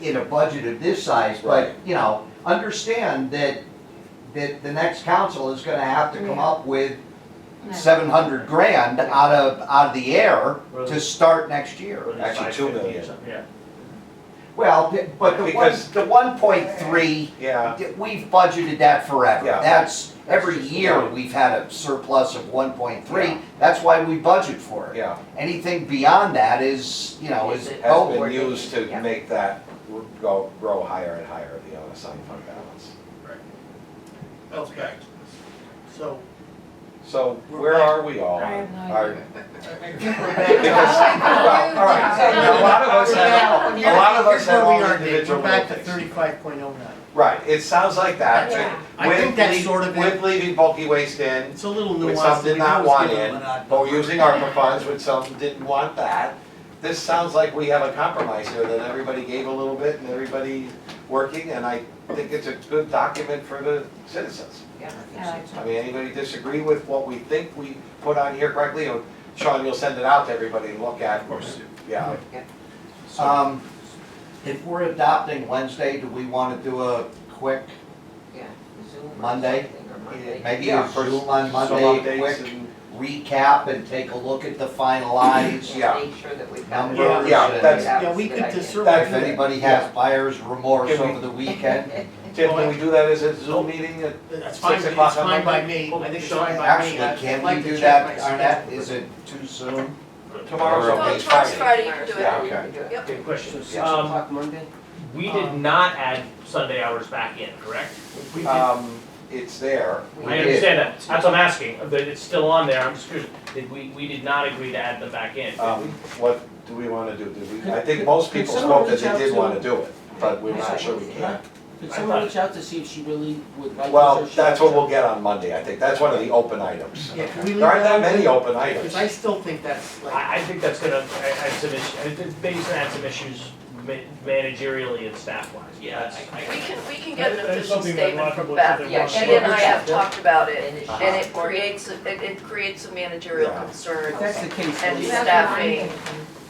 in a budget of this size, but, Right. you know, understand that, that the next council is gonna have to come Yeah. up with seven hundred grand out of, out of the air to start next year. Actually, two million. Yeah. Well, th- but the one, Because- the one point three, Yeah, we've budgeted that forever. Yeah. That's, every That's just- year, we've had a surplus of one point Yeah. three, that's why we budget for it. yeah, Anything beyond that is, you know, is, Is it- has oh, been Forward. used Yeah. to make that r- go, grow higher and higher, the unassigned fund balance. Okay, so. So We're where back. are we all? I have no idea. Are- Because- well, all right, a lot of us have, a lot of us Here's where have we all are, Dave. individual We're back to things. thirty-five point oh nine. Right, it sounds like that. Yeah. but I think with that's lea- sort of it. With leaving bulky waste in, It's a little with nuanced. some We did not always want give them in, an odd but number. we're using ARPA funds with some didn't want that. This sounds like we have a compromise here, that everybody gave a little bit and everybody working, and I think it's a good document for the citizens. I mean, anybody disagree with what we think we put on here correctly, or Sean, you'll send it out to everybody and look at. Of course. Yeah, Um, if we're adopting Wednesday, do we wanna do a quick, Monday? maybe Yeah, a for Zoom on some Monday, updates quick and, recap and take a look at the finalized? Yeah. Make sure that we've got. Numbers and. Yeah, that's- Yeah, we could just sort That's If of, anybody has Yeah. buyer's remorse Can we- over the weekend, Tim, can we do that as a Zoom meeting at that's fine, Six it's o'clock on fine by Monday? me, I think it's Actually, fine by actually, me. I'd can like we to do check that, my Arnett, schedule. is it too soon? tomorrow's Well, okay, it's tomorrow's Friday? Friday, you can do it. Yeah, okay. Yep. Okay, question. Yeah. Um, Monday? we did Um, not add Sunday hours back in, correct? We did- Um, it's there. I understand that, that's what I'm asking, but it's still on there, I'm just curious, did we, we did not agree to add them back in. did Um, we? what do we wanna do? Did we, I think most people spoke that they did wanna do it, but we're not sure we can. Did someone reach out to see if she really would like this? Well, or she- that's what we'll get on Monday, I think. That's one of the open items. Yeah, can we leave There aren't that that many open Because items. I still think that's Ah, like, I, I think that's gonna, I, I have some issues, I think Basin had some issues ma- managerially and staff wise. Yeah, I- We can, we can get an That- that's official something that statement Roger from looks Beth, at yeah, once. she and I have Yeah. talked about it, And it and should- it creates, a- it, it creates a managerial Yeah. concern. If that's the case, And then- staffing.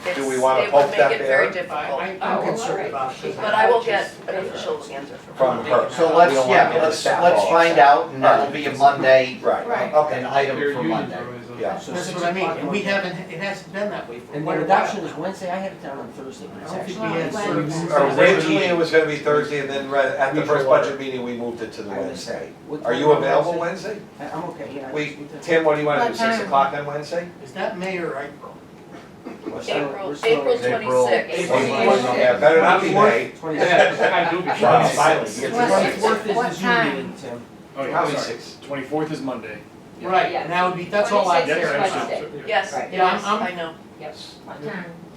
Do we It's- wanna It would poke that make it bear? very I, difficult, I'm Oh, concerned alright. about it. 'cause but I will just- get an official answer from her. From her. So We let's, don't wanna yeah, get the let's, staff let's all find upset. out, and that'll be a Monday, Right, Right. an okay, item for Monday. yeah. So That's six what I mean, o'clock and we on- haven't, it hasn't been that way for And quite the a while adoption is now. Wednesday, I have it down on Thursday, but I it's don't think we actually. had sort of- Originally, it was gonna be Thursday, and then right at the Usual first order. budget meeting, we moved it to the I missed that. Wednesday. What Are time you on available Wednesday? Wednesday? I- I'm okay, yeah. I We, just- Tim, what do you wanna do, What six time? o'clock on Wednesday? Is that May or April? What's that? April, We're slow. April April. twenty-sixth. April. Yeah, better not be May. Twenty-sixth. Wow, silent. You get to- What- Twenty-fourth is the what Zoom time? meeting, Tim. Probably six. Twenty-fourth is Monday. Right, and that would be, that's all I. Yes, I understand. Yes, Right. Yeah, I'm- yes, I'm- I know. Yes.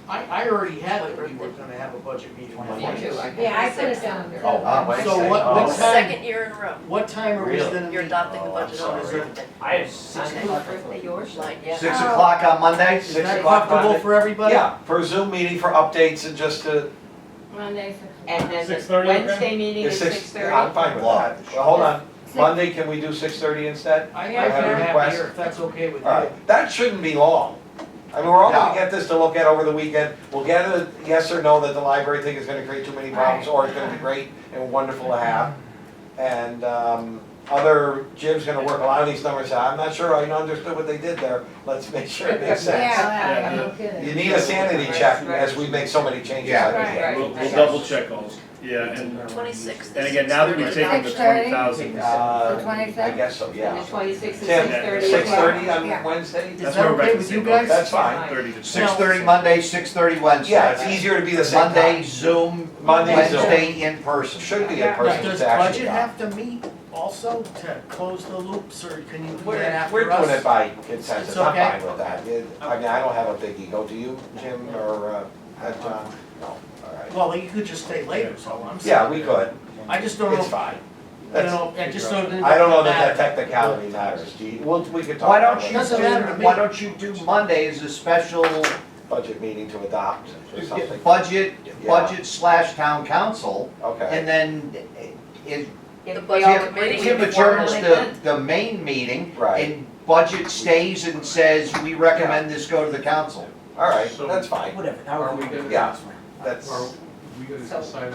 I, I already had it, we were gonna have a budget meeting. on Me Wednesday. too, Yeah, I put it down there. Oh, on Wednesday. So what- Oh. what's that? Second year in a row, What time are we Really? gonna you're meet? adopting the Oh, I'm budget on sorry. reserve. I have six, Like, yeah. Six o'clock on Monday? Is Six that o'clock comfortable Monday? for everybody? Yeah, for a Zoom meeting for updates and just to, Monday, six And then Six thirty, okay? Wednesday meeting is is six, six I'm thirty? fine with that. Well, hold on, Monday, can we do six thirty instead? I, I Yeah, have sure. it Request. here, if that's okay with you. Alright, that shouldn't be long. I mean, we're all No. gonna get this to look at over the weekend, we'll get a yes or no that the library thing is gonna create too many problems, or it's gonna be great and wonderful to have. And, um, other, Jim's gonna work a lot of these numbers out, I'm not sure I understood what they did there, let's make sure it makes sense. Yeah, I- I'm good. You need a sanity check as we make so many changes every Right, day. right. We'll, we'll double check all, yeah, and, Twenty-sixth. and again, now that we've taken the Six twenty thirty? thousand, Uh, The 26th? I guess so, And the yeah. twenty-sixth and Tim, six thirty. Six thirty on Wednesday? Is That's that where we're back okay to with the you same boat. guys? That's fine. thirty to six. Six thirty Monday, six thirty Wednesday. Yeah, it's easier to be the same time. Monday Zoom, Monday, Zoom. Wednesday in person. Should be a Now, person Does that's actually. budget have to meet also to close the loops, or can you do We're, that after we're us? doing it by consensus, It's I'm okay. fine with that. It- I mean, I don't have a big ego, do you, Jim, or, uh, uh, John? No, all right. Well, you could just stay later, so I'm Yeah, saying, we could, I just don't know, it's if- I fine. don't That's, know, I just don't. I don't know that that technicality matters, do you, well, we could talk Why about don't you it, Doesn't matter to do, me. why don't you do Monday as a special budget meeting to adopt or something, budget, Yeah. budget slash town council? okay. And then it, The If we all budget agree committee. Tim before adjourns the, Monday. the main meeting. Right. And budget stays and says, we recommend this go to the council. All right, So- that's fine, Whatever, however Are we we do it. good? Yeah. that's. We gotta decide